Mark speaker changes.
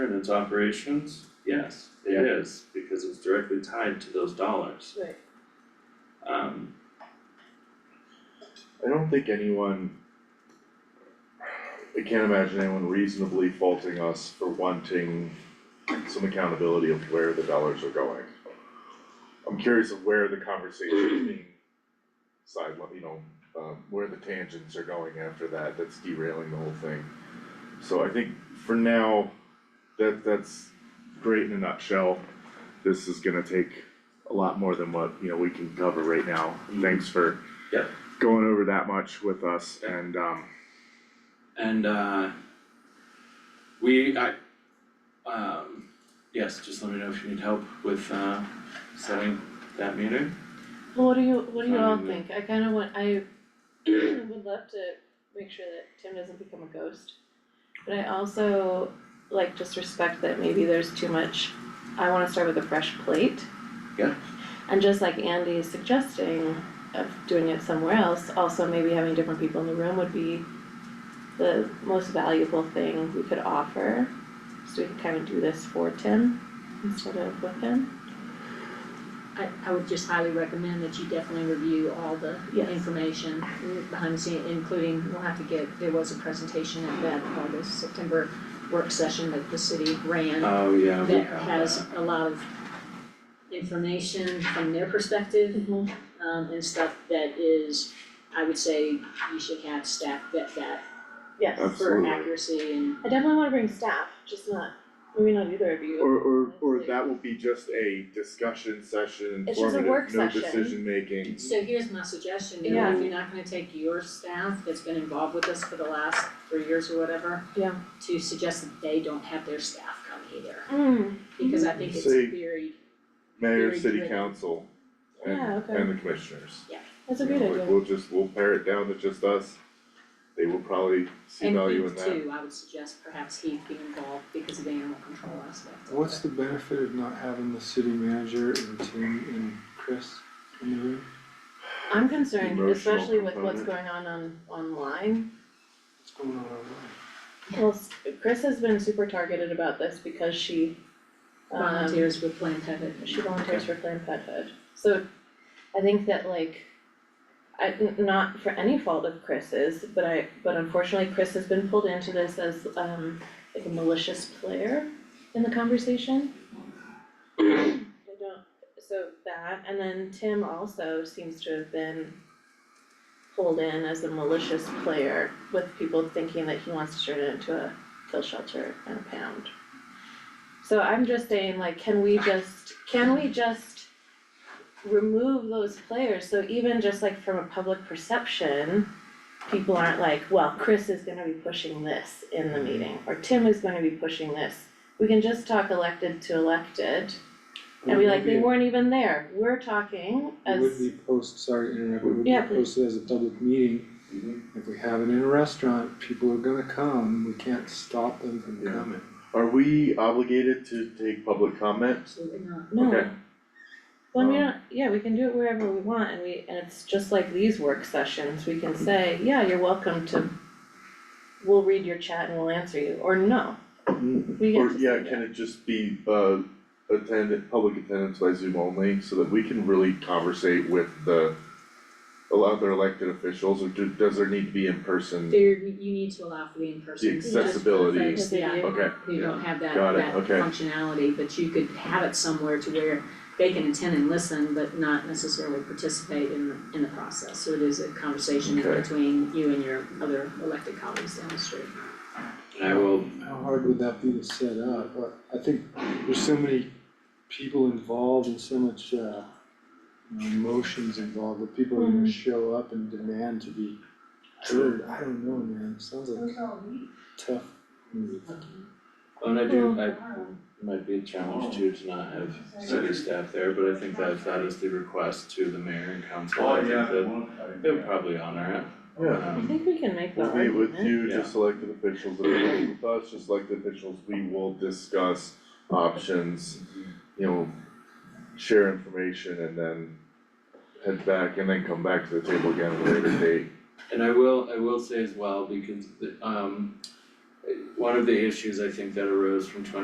Speaker 1: and its operations? Yes, it is, because it's directly tied to those dollars.
Speaker 2: Right.
Speaker 1: Um,
Speaker 3: I don't think anyone. I can't imagine anyone reasonably faulting us for wanting some accountability of where the dollars are going. I'm curious of where the conversation is being side, you know, um, where the tangents are going after that, that's derailing the whole thing. So I think for now, that, that's great in a nutshell. This is gonna take a lot more than what, you know, we can cover right now. Thanks for
Speaker 1: Yeah.
Speaker 3: going over that much with us and, um,
Speaker 1: and uh, we, I, um, yes, just let me know if you need help with uh setting that meter.
Speaker 2: Well, what do you, what do you all
Speaker 1: Um,
Speaker 2: think? I kinda want, I would love to make sure that Tim doesn't become a ghost. But I also like just respect that maybe there's too much, I wanna start with a fresh plate.
Speaker 1: Yeah.
Speaker 2: And just like Andy is suggesting of doing it somewhere else, also maybe having different people in the room would be the most valuable thing we could offer. So we can kinda do this for Tim instead of with him.
Speaker 4: I, I would just highly recommend that you definitely review all the
Speaker 2: Yes.
Speaker 4: information behind the scene, including, we'll have to get, there was a presentation at that, uh, the September work session that the city ran
Speaker 1: Oh, yeah, we
Speaker 4: that
Speaker 1: have
Speaker 4: has
Speaker 1: that.
Speaker 4: a lot of information from their perspective,
Speaker 2: Mm-hmm.
Speaker 4: um, and stuff that is, I would say, you should have staff vet that
Speaker 2: Yes.
Speaker 4: for
Speaker 3: Absolutely.
Speaker 4: accuracy and
Speaker 2: I definitely wanna bring staff, just not, maybe not either of you.
Speaker 3: or, or, or that will be just a discussion session,
Speaker 2: It's just a work
Speaker 3: informative, no
Speaker 2: session.
Speaker 3: decision making.
Speaker 4: So here's my suggestion, you
Speaker 2: Yeah.
Speaker 4: know, if you're not gonna take your staff that's been involved with us for the last three years or whatever.
Speaker 2: Yeah.
Speaker 4: To suggest that they don't have their staff come either,
Speaker 2: Mm, Mm-hmm.
Speaker 4: because I think it's
Speaker 3: Say-
Speaker 4: very,
Speaker 3: Mayor,
Speaker 4: Very
Speaker 3: city
Speaker 4: good.
Speaker 3: council and,
Speaker 2: Yeah, okay.
Speaker 3: and the commissioners.
Speaker 2: That's a
Speaker 3: You
Speaker 2: good
Speaker 3: know, like,
Speaker 2: idea.
Speaker 3: We'll just, we'll pare it down to just us. They will probably see
Speaker 4: and
Speaker 3: value in
Speaker 4: Heath
Speaker 3: that.
Speaker 4: too, I would suggest perhaps Heath be involved because of the animal control aspect of it.
Speaker 5: What's the benefit of not having the city manager and Tim and Chris in the room?
Speaker 2: I'm concerned,
Speaker 3: Emotional
Speaker 2: especially with what's
Speaker 3: component.
Speaker 2: going on on online.
Speaker 5: What's going on over
Speaker 2: Well, s- Chris has been super targeted about this because she um
Speaker 4: Volunteers with Planned Pet.
Speaker 2: she volunteers for Planned Parenthood. So I think that like I n- not for any fault of Chris's, but I but unfortunately Chris has been pulled into this as um like a malicious player in the conversation. I don't, so that, and then Tim also seems to have been pulled in as a malicious player with people thinking that he wants to turn it into a kill shelter and a pound. So I'm just saying, like, can we just, can we just remove those players? So even just like from a public perception, people aren't like, well, Chris is gonna be pushing this in the meeting, or Tim is gonna be pushing this. We can just talk elected to elected and be like, they weren't even there, we're talking
Speaker 5: It would
Speaker 2: as,
Speaker 5: be post, sorry, to interrupt, it would be
Speaker 2: Yeah, please.
Speaker 5: posted as a public meeting.
Speaker 1: Mhm.
Speaker 5: If we have it in a restaurant, people are gonna come, we can't stop them from
Speaker 3: Yeah.
Speaker 5: coming.
Speaker 3: Are we obligated to take public comment?
Speaker 4: Absolutely not.
Speaker 2: no.
Speaker 3: Okay.
Speaker 2: Well, we
Speaker 3: Um,
Speaker 2: don't, yeah, we can do it wherever we want, and we, and it's just like these work sessions, we can say, yeah, you're welcome to, we'll read your chat and we'll answer you, or no, we get
Speaker 3: Mm, Or,
Speaker 2: to say
Speaker 3: yeah,
Speaker 2: that.
Speaker 3: can it just be, uh, attended, public attendance by Zoom only, so that we can really conversate with the other elected officials, or do, does there need to be in person?
Speaker 4: There, you need to allow for the in-person.
Speaker 3: The accessibility.
Speaker 4: Just for folks, yeah,
Speaker 3: Okay,
Speaker 4: who
Speaker 3: yeah.
Speaker 4: don't have that,
Speaker 3: Got it,
Speaker 4: that
Speaker 3: okay.
Speaker 4: functionality, but you could have it somewhere to where they can attend and listen, but not necessarily participate in the, in the process, so it is a conversation
Speaker 3: Okay.
Speaker 4: between you and your other elected colleagues down the street.
Speaker 1: And I will,
Speaker 5: How hard would that be to set up? But I think there's so many people involved and so much, uh, emotions involved, that people are gonna show up and demand to be heard. I don't know, man, sounds like tough move.
Speaker 1: oh, and I do,
Speaker 4: Oh.
Speaker 1: I, it might be a challenge too to not have city staff there, but I think that if that is the request to the mayor and council, I think that they'll probably honor it.
Speaker 3: Yeah,
Speaker 2: I
Speaker 1: Um,
Speaker 2: think we can make the
Speaker 3: we'll meet with
Speaker 2: argument,
Speaker 3: you, just elected officials, that are meeting with us, just elected officials, we will discuss options, you know, share information and then head back and then come back to the table again at a later date.
Speaker 1: And I will, I will say as well, because the, um, one of the issues I think that arose from twenty